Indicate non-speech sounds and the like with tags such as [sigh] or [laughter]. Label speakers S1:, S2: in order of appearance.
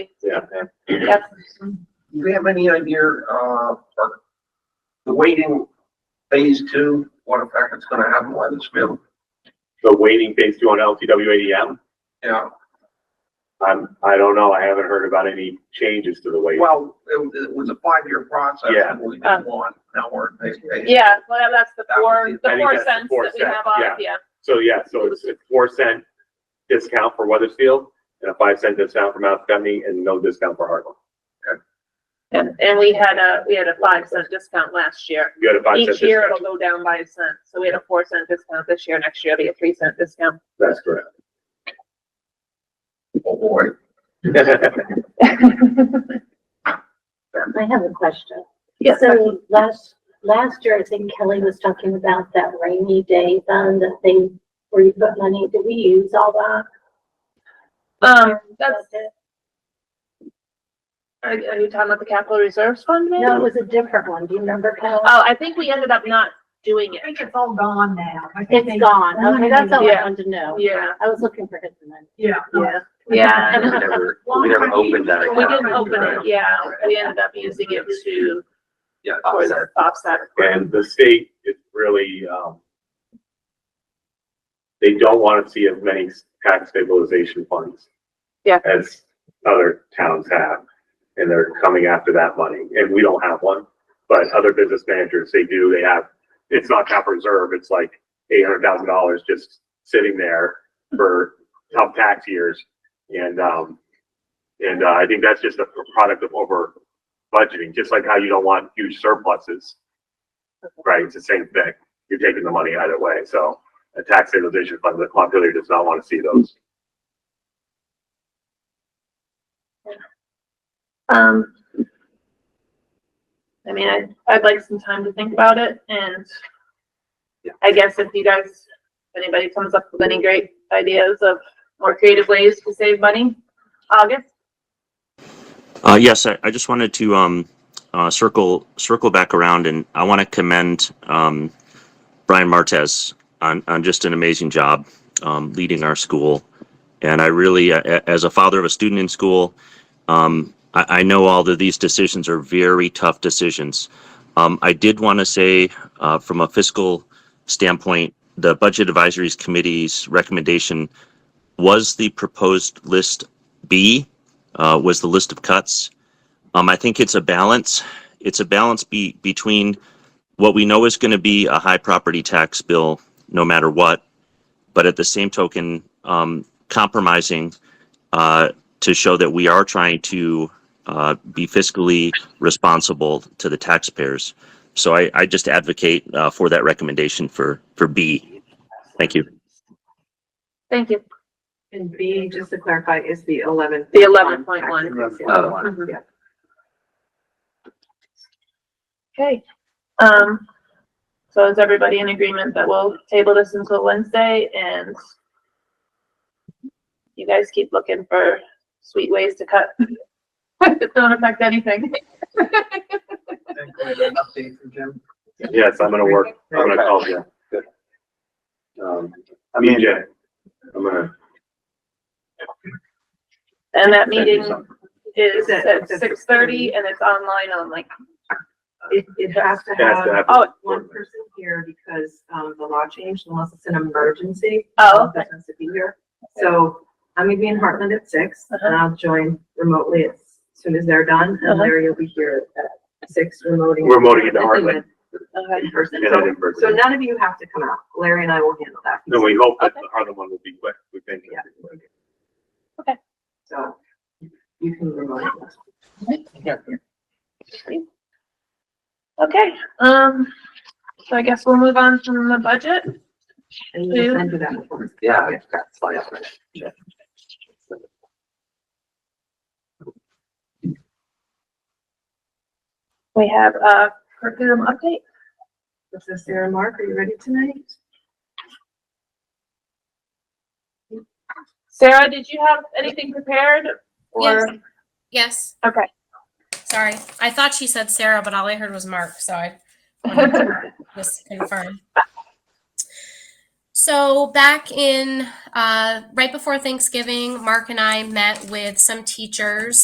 S1: Yeah.
S2: That's
S3: Do you have any idea, uh, or the waiting phase two, what effect it's gonna have on Weathersfield?
S1: The waiting phase two on LTW ADM,
S3: Yeah,
S1: I'm, I don't know, I haven't heard about any changes to the waiting.
S3: well, it, was- it was a five-year process.
S1: Yeah.
S3: We did one, now we're in phase phase.
S2: Um, Yeah, well, that's the
S3: That would
S2: four,
S3: be-
S2: the
S1: I think
S2: four
S1: that's the
S2: cents
S1: four
S2: that we
S1: cents,
S2: have off,
S1: yeah.
S2: yeah.
S1: So yeah, so it's a four cent discount for Weathersfield and a five cent discount for Mount Scumney and no discount for Hartland.
S2: And, and we had a, we had a five cent discount last year.
S1: You had a five cent
S2: Each year
S1: discount.
S2: it'll go down by a cent, so we had a four cent discount this year, next year it'll be a three cent discount.
S1: That's correct.
S3: Oh, boy.
S4: I have a question.
S2: Yes,
S4: So last, last year, I think Kelly was talking about that rainy day fund, that thing where you put money, did we use all that?
S2: um, that's, are you are you talking about the capital reserves fund maybe?
S4: No, it was a different one, do you remember, Kelly?
S2: Oh, I think we ended up not doing it.
S5: I think it's all gone now. I think they-
S4: It's gone, okay, that's all
S2: Yeah.
S4: I wanted to know.
S2: Yeah.
S4: I was looking for his name.
S5: Yeah.
S2: Yeah. Yeah.
S6: We never, we
S5: Long
S6: never
S5: time
S6: opened that
S5: ago.
S2: Uh, We
S6: account.
S2: didn't open it, yeah, we ended up using it to,
S6: Yeah,
S2: for
S6: offset.
S2: the offset.
S1: [laughs] And the state is really, um, they don't want to see as many tax stabilization funds.
S2: Yeah.
S1: As other towns have, and they're coming after that money, and we don't have one. But other business managers, they do, they have, it's not capital reserve, it's like eight hundred thousand dollars just sitting there for tough tax years. And, um, and uh, I think that's just a product of over budgeting, just like how you don't want huge surpluses. Right, it's the same thing. You're taking the money either way, so a tax stabilization fund, the Montpelier does not want to see those.
S2: Um, I mean, I, I'd like some time to think about it and
S6: Yeah.
S2: I guess if you guys, if anybody comes up with any great ideas of more creative ways to save money, August,
S7: Uh, yes, I, I just wanted to um, uh, circle circle back around, and I want to commend um, Brian Martez on on just an amazing job um, leading our school. And I really, uh, a- as a father of a student in school, um, I, I know all of these decisions are very tough decisions. Um, I did want to say, uh, from a fiscal standpoint, the Budget Advisories Committee's recommendation was the proposed list B uh, was the list of cuts. Um, I think it's a balance. It's a balance be, between what we know is going to be a high property tax bill, no matter what, but at the same token, um, compromising uh, to show that we are trying to uh, be fiscally responsible to the taxpayers. So I, I just advocate uh, for that recommendation for for B. Thank you.
S2: thank you,
S8: And B, just to clarify, is the eleven.
S2: the eleven point one.
S6: Uh,
S2: Mhm.
S8: Yeah.
S2: Okay, um, so is everybody in agreement that we'll table this until Wednesday and you guys keep looking for sweet ways to cut? [laughs] that Don't affect anything.
S3: An update from Jim?
S1: Yes, I'm gonna work, I'm gonna call Jim. Um, I mean, Jim, I'm gonna.
S2: And that
S1: send you
S2: meeting
S1: something.
S2: is
S8: Is it-
S2: at
S8: it's at
S2: six thirty and it's online only.
S8: It, it has to
S1: It has to
S8: have
S1: happen.
S2: Oh.
S8: one person here because, um, the law changed unless it's an emergency.
S2: Oh, okay.
S8: It has to be here. So I'm gonna be in Heartland at six and I'll join remotely as soon as they're done. And
S2: Uh-huh.
S8: Larry will be here at six remoting.
S1: Remoting into Heartland.
S2: Okay.
S8: In person.
S1: And then in person.
S8: So none of you have to come out. Larry and I will handle that.
S1: No, we hope that the Harlem one will be quick, we think.
S8: Yeah.
S2: Okay.
S8: So you can remote.
S2: Okay, um, so I guess we'll move on from the budget.
S8: And
S2: Do you-
S8: you send to that before.
S6: Yeah, I've got slides.
S2: We have a curriculum update.
S8: So Sarah, Mark, are you ready tonight?
S2: Sarah, did you have anything prepared? Or,
S9: Yes. Yes,
S2: okay.
S9: sorry. I thought she said Sarah, but all I heard was Mark, so I wanted to just confirm. So back in, uh, right before Thanksgiving, Mark and I met with some teachers